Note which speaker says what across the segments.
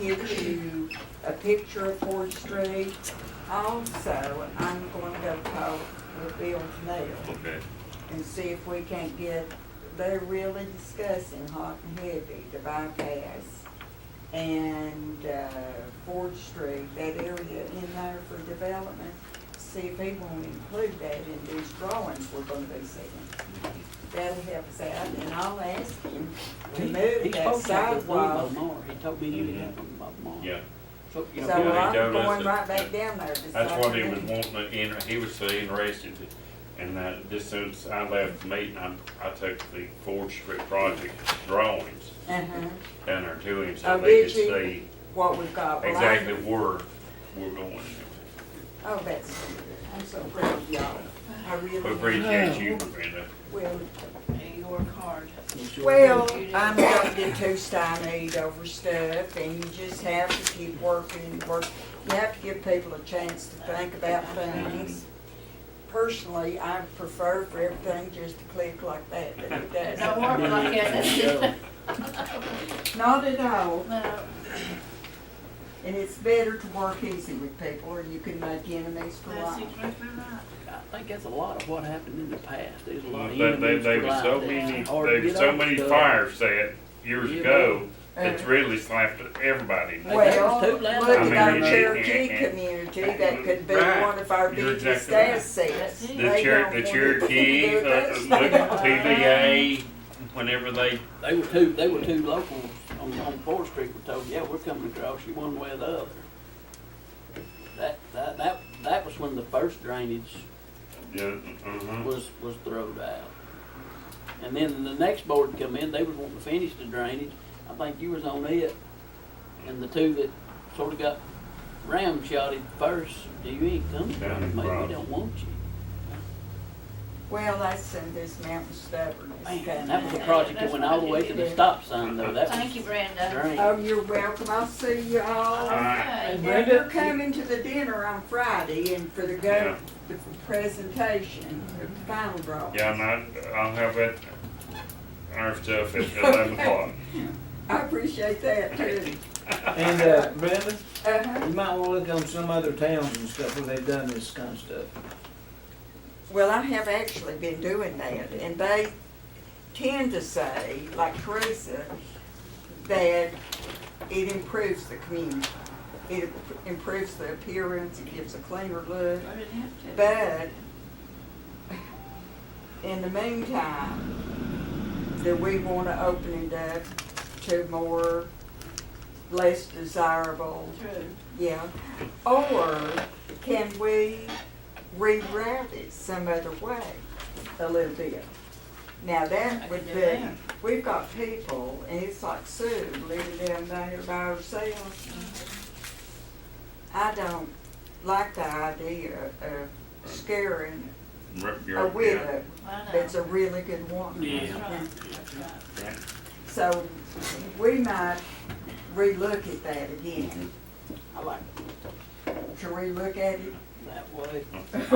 Speaker 1: give you a picture of Ford Street. Also, I'm gonna go talk with Bill Nail
Speaker 2: Okay,
Speaker 1: and see if we can't get, they're really discussing hot and heavy, the bypass. And, uh, Ford Street, that area in there for development, see if he won't include that in these drawings we're gonna be seeing. That'll help us out, and I'll ask him to
Speaker 3: He-
Speaker 1: move
Speaker 3: he
Speaker 1: that
Speaker 3: spoke like a
Speaker 1: sidewalk
Speaker 3: Bob Moore. He told me you had one Bob Moore.
Speaker 2: yeah,
Speaker 3: So, you
Speaker 1: So
Speaker 3: know,
Speaker 2: Yeah,
Speaker 1: I'm
Speaker 2: they don't
Speaker 1: going
Speaker 2: listen.
Speaker 1: right back down there. this
Speaker 2: that's what he was
Speaker 1: afternoon.
Speaker 2: wanting, to in- he was so interested, and that, just since I left the meeting, I, I took the Ford Street project drawings
Speaker 1: Uh-huh,
Speaker 2: down there to him,
Speaker 1: Oh,
Speaker 2: so they could
Speaker 1: did you?
Speaker 2: see
Speaker 1: what we've got. Well, I-
Speaker 2: exactly where we're going.
Speaker 1: Oh, that's, I'm so proud of y'all. I
Speaker 2: We
Speaker 1: really,
Speaker 2: appreciate you, Brenda,
Speaker 1: well,
Speaker 4: and you work hard.
Speaker 1: well, I'm gonna get too stymied over stuff and you just have to keep working and work. You have to give people a chance to think about things. Personally, I prefer for everything just to click like that, but it
Speaker 4: Don't
Speaker 1: doesn't.
Speaker 4: work like that.
Speaker 1: Not at all.
Speaker 4: No,
Speaker 1: And it's better to work easy with people or you can make enemies for
Speaker 4: that's
Speaker 1: life.
Speaker 4: exactly right.
Speaker 3: I think that's a lot of what happened in the past. There's a lot of
Speaker 2: they, they,
Speaker 3: enemies
Speaker 2: they was so
Speaker 3: alive.
Speaker 2: many,
Speaker 3: It's hard to
Speaker 2: they was
Speaker 3: get
Speaker 2: so
Speaker 3: over
Speaker 2: many
Speaker 3: stuff.
Speaker 2: fires set years
Speaker 3: Yeah,
Speaker 2: ago,
Speaker 1: Uh,
Speaker 2: that's really slapped everybody.
Speaker 3: Hey, that
Speaker 1: Well,
Speaker 3: was too
Speaker 1: look
Speaker 3: loud.
Speaker 2: I
Speaker 1: at
Speaker 2: mean,
Speaker 1: our
Speaker 2: it-
Speaker 1: Cherokee
Speaker 2: it- it-
Speaker 1: community, that could be
Speaker 2: Right.
Speaker 1: one of our
Speaker 2: You're
Speaker 1: biggest
Speaker 2: exactly right.
Speaker 1: assets.
Speaker 4: The
Speaker 1: They
Speaker 2: The Cher,
Speaker 1: don't
Speaker 2: the
Speaker 1: want to
Speaker 2: Cherokee,
Speaker 1: do
Speaker 2: uh, uh,
Speaker 1: those
Speaker 2: look,
Speaker 1: things.
Speaker 2: TVA, whenever they
Speaker 3: They were two, they were two locals on, on Fourth Street were told, yeah, we're coming across you one way or the other. That, that, that, that was when the first drainage
Speaker 2: Yeah, uh-huh.
Speaker 3: was, was throwed out. And then the next board come in, they was wanting to finish the drainage, I think you was on it. And the two that sort of got ramshotted first, you ain't coming,
Speaker 2: Down in
Speaker 3: mate, we
Speaker 2: Bronx.
Speaker 3: don't want you.
Speaker 1: Well, that's in this mountain stubbornness.
Speaker 3: Man, that was a
Speaker 1: coming.
Speaker 3: project that went all the way to the stop sign though, that
Speaker 4: Thank you,
Speaker 3: was
Speaker 4: Brenda.
Speaker 3: drainage.
Speaker 1: Oh, you're welcome. I'll see you all.
Speaker 2: Uh,
Speaker 4: Okay.
Speaker 1: Now, you're coming to the dinner on Friday and for the
Speaker 2: Yeah.
Speaker 1: go, the presentation, the final draw.
Speaker 2: Yeah, and I, I'll have that, our stuff at eleven o'clock.
Speaker 1: I appreciate that too.
Speaker 5: And uh, Brenda,
Speaker 1: Uh-huh.
Speaker 5: you might wanna look on some other towns and stuff where they've done this kind of stuff.
Speaker 1: Well, I have actually been doing that, and they tend to say, like Teresa, that it improves the community. It improves the appearance, it gives a cleaner look,
Speaker 4: I didn't have to.
Speaker 1: but in the meantime, do we want to open it up to more, less desirable
Speaker 4: True.
Speaker 1: yeah, or can we reroute it some other way a little bit? Now that would
Speaker 4: I can do
Speaker 1: be,
Speaker 4: that.
Speaker 1: we've got people, and it's like Sue, living down there by herself. I don't like the idea of scaring
Speaker 2: Rip
Speaker 1: a
Speaker 2: your-
Speaker 1: widow
Speaker 4: I know.
Speaker 1: that's a really good woman.
Speaker 3: Yeah.
Speaker 4: That's right, that's right.
Speaker 1: So we might relook at that again,
Speaker 3: I like
Speaker 1: to relook at it,
Speaker 3: that way.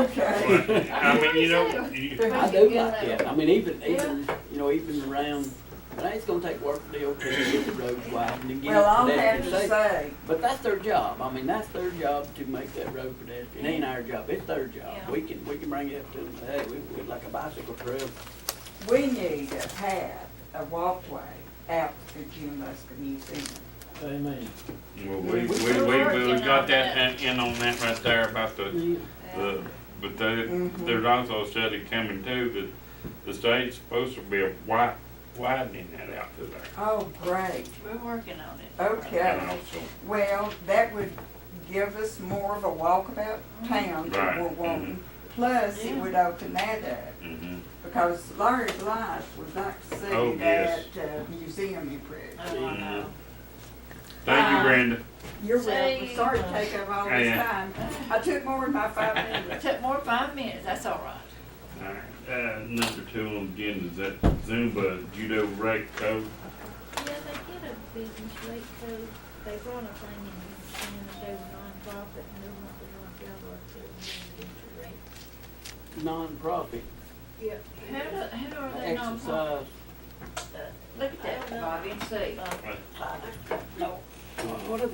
Speaker 1: okay?
Speaker 2: Well, I mean, you know, you-
Speaker 3: I do like that, I mean, even, even, you know, even around, now it's gonna take work to DOT to get the roads widened and get
Speaker 1: Well, I'll
Speaker 3: it
Speaker 1: have
Speaker 3: pedestrian
Speaker 1: to
Speaker 3: safe.
Speaker 1: say,
Speaker 3: But that's their job, I mean, that's their job to make that road pedestrian, it ain't our job, it's their job.
Speaker 4: Yeah.
Speaker 3: We can, we can bring it up to them, hey, we, we'd like a bicycle trail,
Speaker 1: we need a path, a walkway out to Jim Musker Museum.
Speaker 5: Amen.
Speaker 2: well, we, we, we, we got that in- in on that right there about the,
Speaker 3: Yeah.
Speaker 2: the, but they, there's also a study coming too, that the state's supposed to be wi- widening that out to there.
Speaker 1: Oh, great.
Speaker 4: We're working on it.
Speaker 1: Okay.
Speaker 2: And also,
Speaker 1: Well, that would give us more of a walkabout town that we're
Speaker 2: Right, mhm.
Speaker 1: wanting. Plus, it
Speaker 4: Yeah.
Speaker 1: would open that up,
Speaker 2: hmm
Speaker 1: because Larry Blythe would like to
Speaker 2: Oh,
Speaker 1: see that
Speaker 2: yes.
Speaker 1: uh, museum improved.
Speaker 4: Oh, I know.
Speaker 2: Thank you,
Speaker 1: Uh,
Speaker 2: Brenda.
Speaker 1: You're
Speaker 4: Say-
Speaker 1: welcome, sorry to take up all this
Speaker 2: Yeah.
Speaker 1: time. I took more than my five
Speaker 4: It
Speaker 1: minutes.
Speaker 4: took more than five minutes, that's all right.
Speaker 2: All right, Uh, number two on the agenda is that Zumba judo rec coach.
Speaker 6: Yeah, they did a business rate code, they brought a thing in, and they were nonprofit, and they wanted to know if y'all were to business rate.
Speaker 3: non-profit
Speaker 6: Yeah.
Speaker 4: How do, how do are they not? Look
Speaker 3: exercise.
Speaker 4: at that, Bobby, and see.
Speaker 3: What are